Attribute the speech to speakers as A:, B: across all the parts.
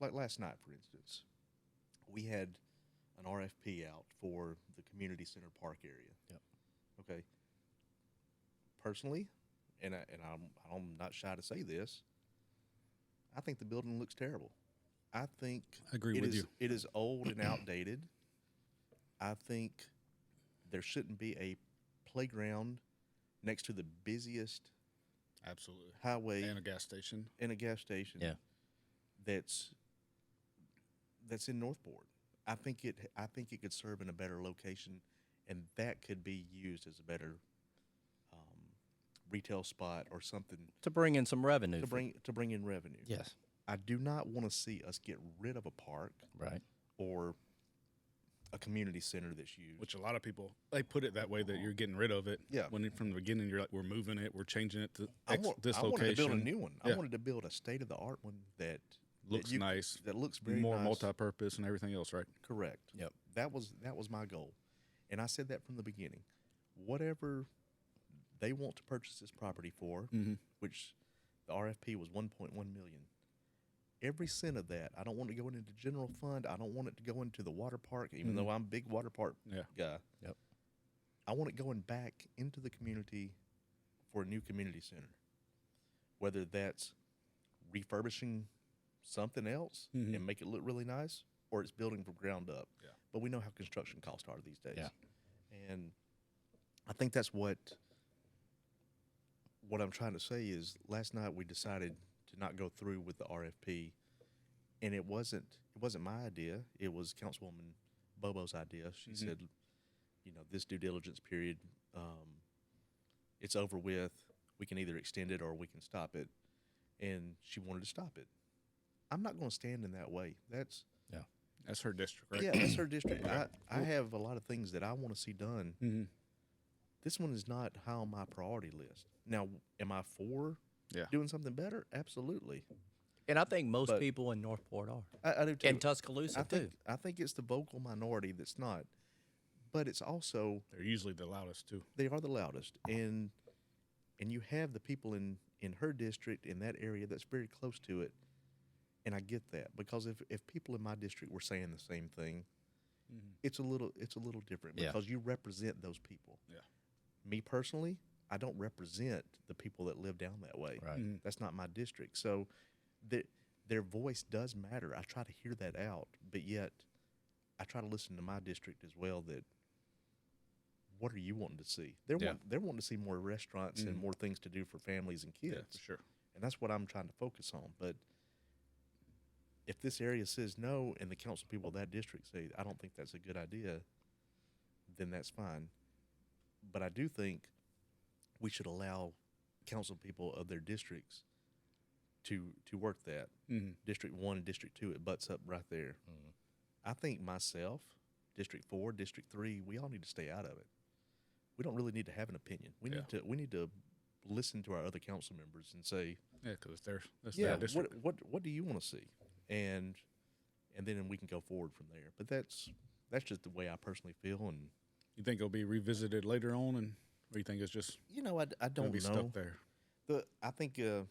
A: like last night, for instance, we had an RFP out for the community center park area.
B: Yep.
A: Okay. Personally, and I, and I'm I'm not shy to say this. I think the building looks terrible. I think
B: I agree
A: it
B: with
A: is-
B: you.
A: It is old and outdated. I think there shouldn't be a playground next to the busiest
C: Absolutely.
A: highway
C: And a gas station.
A: in a gas station.
B: Yeah.
A: That's that's in Northport. I think it I think it could serve in a better location and that could be used as a better um, retail spot or something
B: to bring in some revenue.
A: to
B: for-
A: bring to bring in revenue.
B: yes,
A: I do not want to see us get rid of a park
B: right.
A: or a community center that's used.
C: which a lot of people they put it that way that you're getting rid of it.
A: Yeah.
C: When it, from the beginning you're like we're moving it, we're changing it to
A: I,
C: X,
A: wa-
C: this
A: I wanted to
C: location.
A: build a new one. I
C: Yeah.
A: wanted to build a state of the art one that
C: looks
A: you-
C: nice,
A: that looks very
C: more
A: nice.
C: multi-purpose and everything else, right?
A: Correct.
B: Yep.
A: That was that was my goal, and I said that from the beginning. Whatever they want to purchase this property for,
C: Mm-hmm.
A: which the RFP was 1.1 million. Every cent of that, I don't want to go into the general fund. I don't want it to go into the water park, even
C: Mhm.
A: though I'm a big water park
C: Yeah.
A: guy.
B: Yep.
A: I want it going back into the community for a new community center, whether that's refurbishing something else
B: Mm-hmm.
C: Mhm.
A: and make it look really nice, or it's building from ground up.
C: Yeah.
A: But we know how construction costs are these days,
B: Yeah.
A: and I think that's what what I'm trying to say is last night we decided to not go through with the RFP and it wasn't it wasn't my idea. It was Councilwoman Bobo's idea. She
C: Mhm.
A: said, you know, this due diligence period, um, it's over with. We can either extend it or we can stop it. And she wanted to stop it. I'm not going to stand in that way. That's
C: That's her district, right?
A: yeah, that's her district. I, I have a lot of things that I want to see done
C: Mm-hmm.
A: this one is not high on my priority list. Now, am I for
C: Yeah.
A: doing something better? Absolutely.
B: And I think most
A: But-
B: people in Northport are,
A: I, I do too.
B: and Tuscaloosa
A: I
B: too.
A: think, I think it's the vocal minority that's not, but it's also
C: They're usually the loudest too.
A: they are the loudest, and and you have the people in in her district in that area that's very close to it, and I get that because if if people in my district were saying the same thing, it's a little it's a little different
B: Yeah.
A: because you represent those people.
C: Yeah.
A: Me personally, I don't represent the people that live down that way.
B: Right.
C: Mhm.
A: That's not my district. So their their voice does matter. I try to hear that out, but yet I try to listen to my district as well that what are you wanting to see? They're
C: Yeah.
A: want, they're wanting to see more restaurants and
C: Mhm.
A: more things to do for families and kids
C: Yeah, for sure.
A: and that's what I'm trying to focus on. But if this area says no, and the council people of that district say I don't think that's a good idea, then that's fine. But I do think we should allow council people of their districts to to work that.
C: Mm-hmm.
A: District one and district two, it butts up right there.
B: Mhm.
A: I think myself, District four, District three, we all need to stay out of it. We don't really need to have an opinion. We need to we need to listen to our other council members and say,
C: Yeah, because it's their that's
A: yeah
C: their district.
A: what what what do you want to see and and then we can go forward from there but that's that's just the way i personally feel and
C: you think it'll be revisited later on, and or you think it's just
A: you know i, d- I
C: gonna
A: don't
C: be
A: know
C: stuck there?
A: the i think uh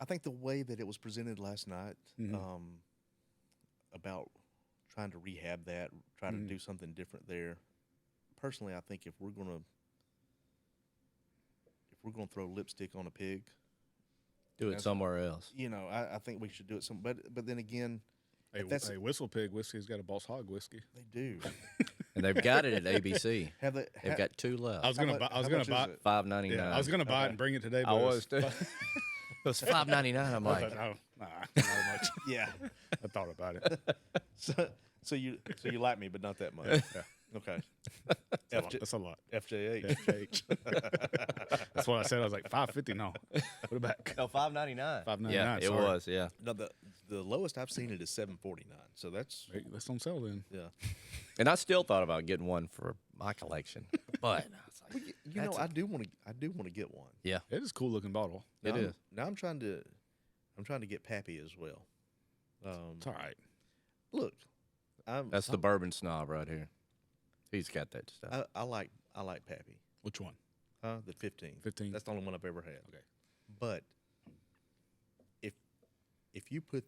A: i think the way that it was presented last night
C: Mhm.
A: um about trying to rehab that try
C: Mhm.
A: to do something different there personally i think if we're gonna if we're gonna throw lipstick on a pig
B: Do it
A: That's-
B: somewhere else.
A: you know i, I think we should do it some but but then again
C: Hey,
A: that's-
C: hey, Whistle Pig whiskey's got a Boss Hog whiskey.
A: they do
B: And they've got it at ABC.
A: Have they?
B: They've
A: ha-
B: got two
C: I
B: left.
C: was
A: how
C: gonna
A: mu-
C: buy. I
A: how
C: was gonna
A: much is
C: buy. uh,
A: it?
B: Five ninety
C: Yeah, I was
B: nine.
C: gonna buy it
A: Okay.
C: and bring it today.
B: I
C: but it
B: was too. it was five ninety nine. I'm
C: I was
B: like,
C: like, no, nah, not much.
A: yeah.
C: I thought about it.
A: So, so you so you like me, but not that much.
C: Yeah.
A: Okay.
C: That's a lot.
A: FJ
C: That's a lot.
A: FJH.
C: That's what I said. I was like five fifty. No, put it back.
B: no, five ninety nine. Yeah,
C: $5.99,
B: it
C: sorry.
B: was. Yeah.
A: No, the the lowest I've seen it is seven forty nine. So that's
C: Hey, That's on sale then.
A: yeah.
B: And I still thought about getting one for my collection, but I was like,
A: You
B: That's
A: know, I do want to I do want to get one.
B: yeah,
C: It is a cool looking bottle.
B: it is.
A: Now I'm- Now I'm trying to I'm trying to get Pappy as well. Um,
C: It's all right.
A: look, I'm
B: That's the bourbon snob right here. He's got that stuff.
A: I, I like I like Pappy.
C: Which one?
A: Huh? The fifteen.
C: 15.
A: That's the only one I've ever had.
C: Okay.
A: But if if you put